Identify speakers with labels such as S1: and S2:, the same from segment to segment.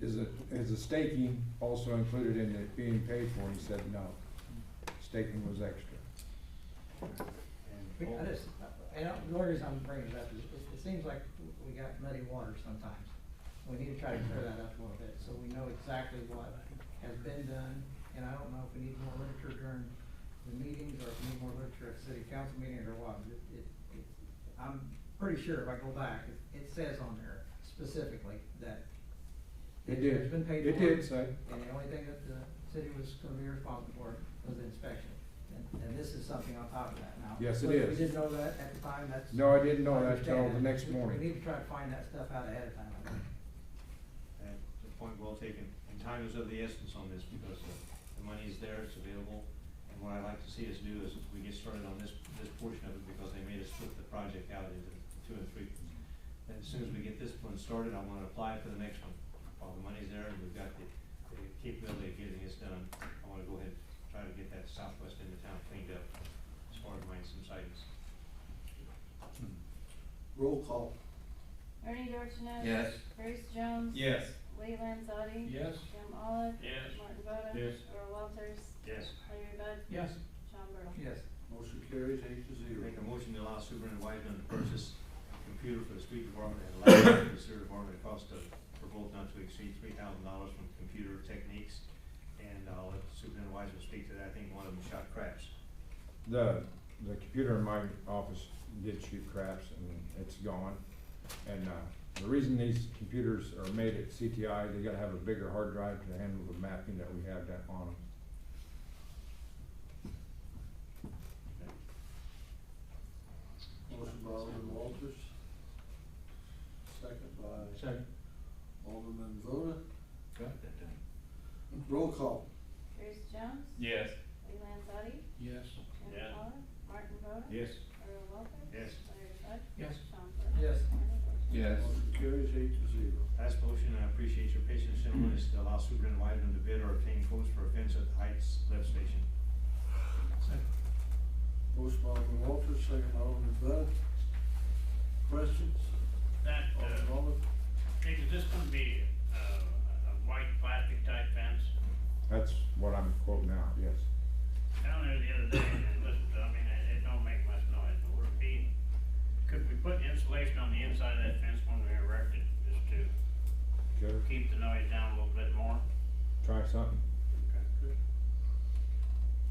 S1: Is it, is the staking also included in it being paid for? And he said no. Staking was extra.
S2: We- I just, I don't, the only reason I'm bringing it up is, it, it seems like we got muddy water sometimes. We need to try to clear that up a little bit, so we know exactly what has been done, and I don't know if we need more literature during the meetings, or if we need more literature at city council meetings or what, but it, it, I'm pretty sure if I go back, it, it says on there specifically that
S1: It did,
S2: has been paid for.
S1: it did say,
S2: And the only thing that the city was gonna be responsible for was the inspection. And, and this is something on top of that now.
S1: Yes, it
S2: Whether
S1: is.
S2: We didn't know that at the time, that's.
S1: no, I didn't know that till
S2: understand
S1: the
S2: that.
S1: next
S2: We- We
S1: morning.
S2: need to try to find that stuff out ahead of time. I think.
S3: And the point well taken, and time is of the essence on this, because the, the money is there, it's available, and what I'd like to see us do is, we get started on this, this portion of it, because they made us split the project out into two and three. And as soon as we get this one started, I wanna apply for the next one, while the money's there, and we've got the, the capability of getting this done, I wanna go ahead, and try to get that southwest end of town cleaned up, as far as mines and sites.
S4: Roll call.
S5: Ernie Dorchenez?
S6: Yes.
S5: Bruce Jones?
S6: Yes.
S5: Lee Landzadi?
S6: Yes.
S5: Jim Olive?
S6: Yes.
S5: Martin Boda?
S6: Yes.
S5: Earl Walters?
S3: Yes.
S5: Larry Bud?
S2: Yes.
S5: Sean Burdell?
S2: Yes.
S4: Motion carries eight to zero.
S3: Make a motion to allow Superintendent Wiseman to purchase a computer for the street department and a laptop for the sewer department at a cost of, for both not to exceed three thousand dollars from Computer Techniques. And uh, I'll let Superintendent Wiseman speak to that, I think one of them shot craps.
S1: The, the computer in my office did shoot craps and it's gone. And, uh, the reason these computers are made at CTI, they gotta have a bigger hard drive to handle the mapping that we have that on them.
S4: Motion by Alderman Walters. Second by
S6: Second.
S4: Alderman Voda. Roll call.
S5: Bruce Jones?
S6: Yes.
S5: Lee Landzadi?
S6: Yes.
S5: Jim
S3: Yeah.
S5: Olive? Martin Boda?
S6: Yes.
S5: Earl Walters?
S3: Yes.
S5: Larry Bud?
S6: Yes.
S5: Sean Burdell?
S2: Yes.
S5: Ernie Dorchenez?
S6: Yes.
S4: Motion carries eight to zero.
S3: Last motion, I appreciate your patience, gentlemen, is to allow Superintendent Wiseman to bid or obtain quotes for a fence at the Heights lift station.
S4: Motion by Alderman Walters, second by Alderman Voda. Questions?
S7: That,
S4: Alderman
S7: uh,
S4: Olive?
S7: Nick, is this gonna be, uh, a a white plastic type fence?
S1: That's what I'm quoting out, yes.
S7: Down there the other day, and it was, I mean, it, it don't make much noise, but would it be, could we put insulation on the inside of that fence when we erect it, just to
S1: Could
S7: keep the noise down a little bit more?
S1: try something.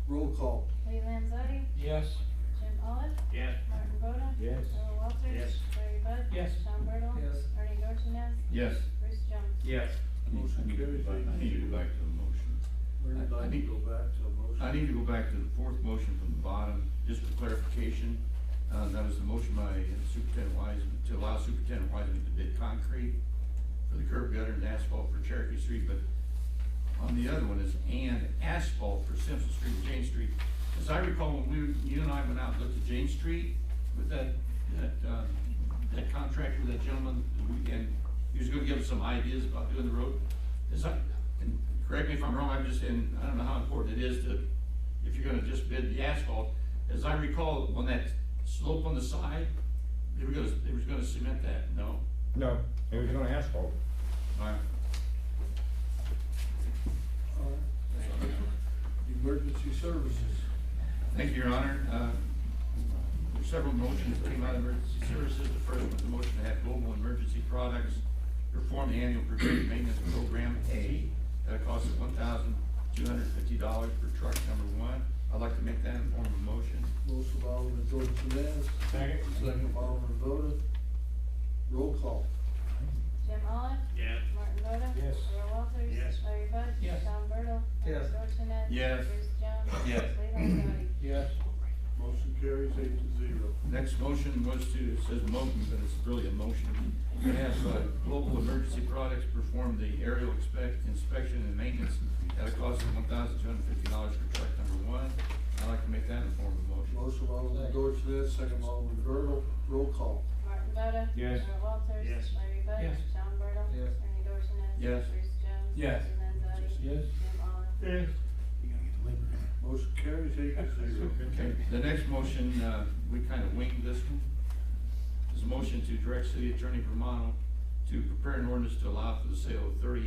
S4: Roll call.
S5: Lee Landzadi?
S6: Yes.
S5: Jim Olive?
S7: Yes,
S5: Martin Boda?
S6: Yes.
S5: Earl Walters?
S3: Yes.
S5: Larry Bud?
S6: Yes.
S5: Sean Burdell?
S2: Yes.
S5: Ernie Dorchenez?
S6: Yes.
S5: Bruce Jones?
S6: Yes.
S4: Motion carries eight
S8: I
S4: to
S8: need to go
S4: zero.
S8: back to the motion.
S4: We're
S8: I
S4: going to
S8: need-
S4: go back to a motion.
S8: I need to go back to the fourth motion from the bottom, just for clarification. Uh, that was the motion by Superintendent Wiseman, to allow Superintendent Wiseman to bid concrete for the curb gutter and asphalt for Cherokee Street, but on the other one is and asphalt for Simpson Street and Jane Street. As I recall, when we, you and I went out and looked at Jane Street with that, that, uh, that contractor, that gentleman, and he was gonna give us some ideas about doing the road. Is I, and correct me if I'm wrong, I'm just, and I don't know how important it is to, if you're gonna just bid the asphalt. As I recall, on that slope on the side, they were gonna, they were gonna cement that, no?
S1: No, it was gonna asphalt.
S8: All right.
S4: All right. Emergency services.
S8: Thank you, Your Honor. Uh, There were several motions that came out of emergency services. The first was the motion to have Global Emergency Products perform the annual preventive maintenance program A at a cost of one thousand two hundred fifty dollars per truck number one. I'd like to make that in form of a motion.
S4: Motion by Alderman Dorsones. Second. Second by Alderman Voda. Roll call.
S5: Jim Olive?
S7: yes.
S5: Martin Boda?
S1: Yes.
S5: Earl Walters?
S3: Yes.
S5: Larry Bud?
S6: Yes.
S5: Sean Burdell?
S2: Yes.
S5: Ernie Dorchenez?
S8: Yes.
S5: Bruce Jones?
S8: Yes.
S5: Lee Landzadi?
S6: Yes.
S4: Motion carries eight to zero.
S8: Next motion was to, it says motion, but it's really a motion. To have uh, Global Emergency Products perform the aerial expect, inspection and maintenance at a cost of one thousand two hundred fifty dollars per truck number one. I'd like to make that in form of a motion.
S4: Motion by Alderman Dorsones, second by Alderman Bertle. Roll call.
S5: Martin Boda?
S1: Yes.
S5: Earl Walters?
S3: Yes.
S5: Larry Bud?
S6: Yes.
S5: Sean Burdell?
S2: Yes.
S5: Ernie Dorchenez?
S8: Yes.
S5: Bruce Jones?
S6: Yes.
S5: Lee Landzadi?
S6: Yes.
S5: Jim Olive?
S6: Yes.
S4: Motion carries eight to zero.
S8: Okay, the next motion, uh, we kind of winged this one. Is a motion to direct City Attorney Romano to prepare an ordinance to allow for the sale of thirty